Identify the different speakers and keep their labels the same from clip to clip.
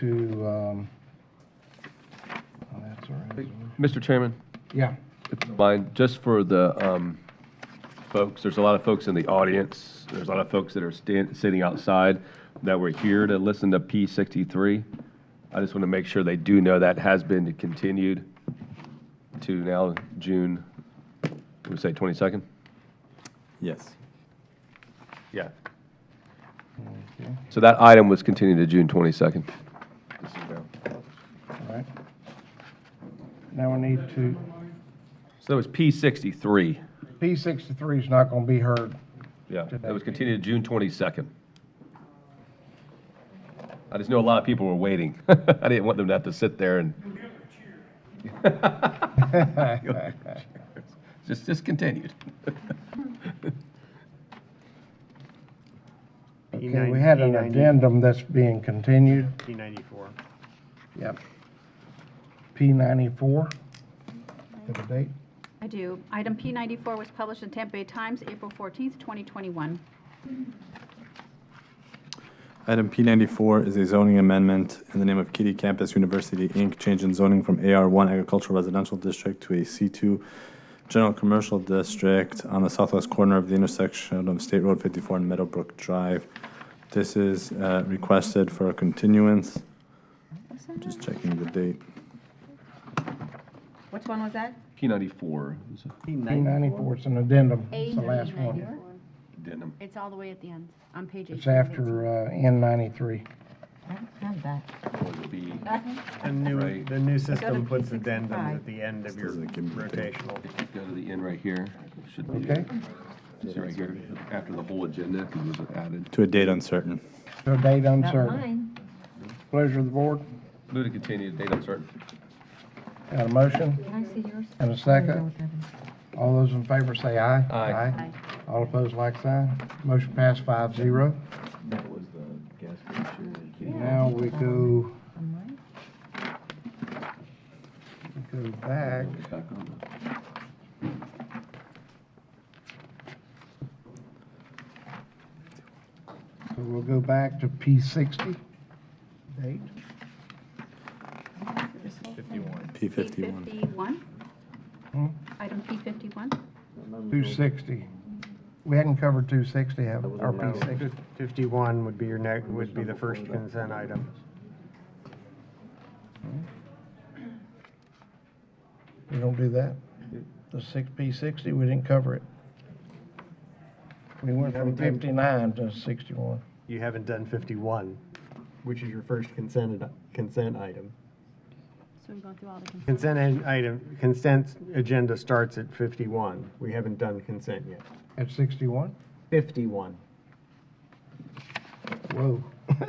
Speaker 1: to, um, oh, that's all right.
Speaker 2: Mr. Chairman,
Speaker 1: Yeah,
Speaker 2: if you don't mind, just for the um, folks, there's a lot of folks in the audience, there's a lot of folks that are stan- sitting outside that were here to listen to P63. I just want to make sure they do know that has been continued to now June, what we say 22nd?
Speaker 3: Yes.
Speaker 2: Yeah.
Speaker 1: okay,
Speaker 2: So that item was continued to June 22nd.
Speaker 1: all right. Now we need to,
Speaker 2: So it's P63.
Speaker 1: P sixty-three is not gonna be heard.
Speaker 2: Yeah, it was continued to June 22nd. I just know a lot of people were waiting. I didn't want them to have to sit there and. Just discontinued.
Speaker 1: Okay,
Speaker 4: E
Speaker 1: we had an
Speaker 4: E90.
Speaker 1: addendum that's being continued,
Speaker 4: P ninety-four.
Speaker 1: yep. P ninety-four, have a date?
Speaker 5: I do. Item P ninety-four was published in Tampa Bay Times, April fourteenth, twenty twenty-one.
Speaker 3: Item P94 is a zoning amendment in the name of Kitty Campus University, Inc., changing zoning from AR1 Agricultural Residential District to a C2 General Commercial District on the southwest corner of the intersection of State Road 54 and Meadowbrook Drive. This is uh, requested for a continuance. Just checking the date.
Speaker 6: Which one was that?
Speaker 2: P94, is a
Speaker 1: P ninety-four, it's an addendum,
Speaker 7: A
Speaker 1: it's the last one.
Speaker 7: ninety-four.
Speaker 2: denim.
Speaker 7: It's all the way at the end, on page eight.
Speaker 1: It's after, uh, N ninety-three.
Speaker 6: I don't have that.
Speaker 2: or the B.
Speaker 4: The new,
Speaker 2: Right.
Speaker 4: the new system
Speaker 6: to
Speaker 4: puts
Speaker 6: P65.
Speaker 4: addendums at the end of your
Speaker 3: doesn't give me the date.
Speaker 4: rotational.
Speaker 2: If you go to the end right here, it should be.
Speaker 1: Okay.
Speaker 2: It's right here, after the whole agenda, because it was added.
Speaker 3: To a date uncertain.
Speaker 1: So date
Speaker 6: Not
Speaker 1: uncertain.
Speaker 6: mine.
Speaker 1: Pleasure of the board.
Speaker 2: Move to continue, date uncertain.
Speaker 1: Got a motion
Speaker 6: Can I see yours?
Speaker 1: and a
Speaker 6: I
Speaker 1: second?
Speaker 6: don't have it.
Speaker 1: All those in favor say aye.
Speaker 2: Aye.
Speaker 1: Aye. All opposed, like sign. Motion passed five zero.
Speaker 3: That was the gas station.
Speaker 1: Now we go,
Speaker 6: On mine?
Speaker 1: we go back.
Speaker 2: Back on.
Speaker 1: So We'll go back to P sixty. Date.
Speaker 3: P51.
Speaker 5: Fifty-one?
Speaker 1: Hmm?
Speaker 5: Item P fifty-one?
Speaker 1: Two sixty. We hadn't covered two sixty, have, or P sixty.
Speaker 4: Fifty-one would be your next, would be the first consent item.
Speaker 1: We don't do that. The six, P sixty, we didn't cover it. We went from fifty-nine to sixty-one.
Speaker 4: You haven't done fifty-one, which is your first consent, ad- consent item.
Speaker 7: So we go through all the consent.
Speaker 4: Consent an- item, consent agenda starts at fifty-one. We haven't done consent yet.
Speaker 1: At sixty-one?
Speaker 4: Fifty-one.
Speaker 1: Whoa.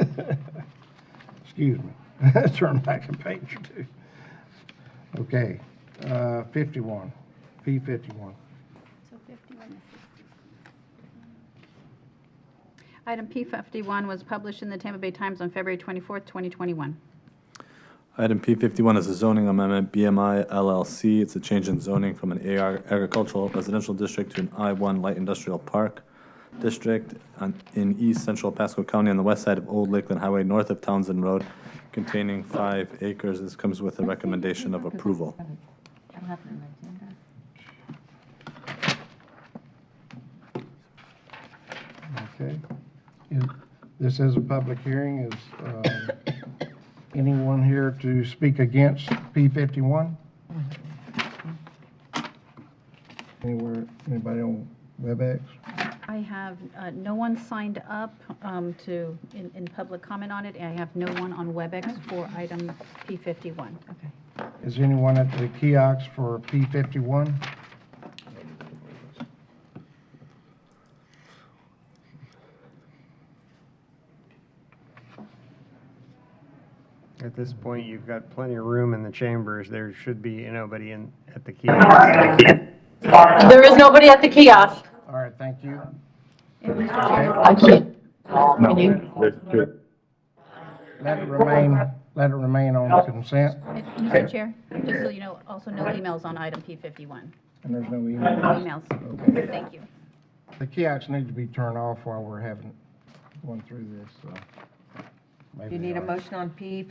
Speaker 1: Excuse me. Turn back a page or two. Okay, uh, fifty-one, P fifty-one.
Speaker 7: So fifty-one to sixty.
Speaker 5: Item P fifty-one was published in the Tampa Bay Times on February twenty-fourth, twenty twenty-one.
Speaker 3: Item P fifty-one is a zoning amendment, BMI LLC. It's a change in zoning from an AR agricultural residential district to an I one light industrial park district on- in east central Pasco County on the west side of Old Lakeland Highway, north of Townsend Road, containing five acres. This comes with a recommendation of approval.
Speaker 6: I don't have it on my agenda.
Speaker 1: Okay. Is- This is a public hearing. Is uh, anyone here to speak against P fifty-one? Anywhere, anybody on WebEx?
Speaker 5: I have, uh, no one signed up, um, to, in, in public comment on it. I have no one on WebEx for item P fifty-one.
Speaker 6: Okay.
Speaker 1: Is anyone at the kiosk for P fifty-one?
Speaker 4: At this point, you've got plenty of room in the chambers. There should be nobody in, at the key.
Speaker 8: There is nobody at the kiosk.
Speaker 1: All right, thank you.
Speaker 8: I can't. Can you?
Speaker 1: Let it remain, let it remain on consent,
Speaker 5: Mr. Chair, just so you know, also no emails on item P fifty-one.
Speaker 1: and there's no E.
Speaker 5: No
Speaker 1: email.
Speaker 5: Emails. Thank you.
Speaker 1: The kiosks need to be turned off while we're having, going through this, so. maybe
Speaker 6: You need
Speaker 1: they
Speaker 6: a
Speaker 1: are.
Speaker 6: motion on P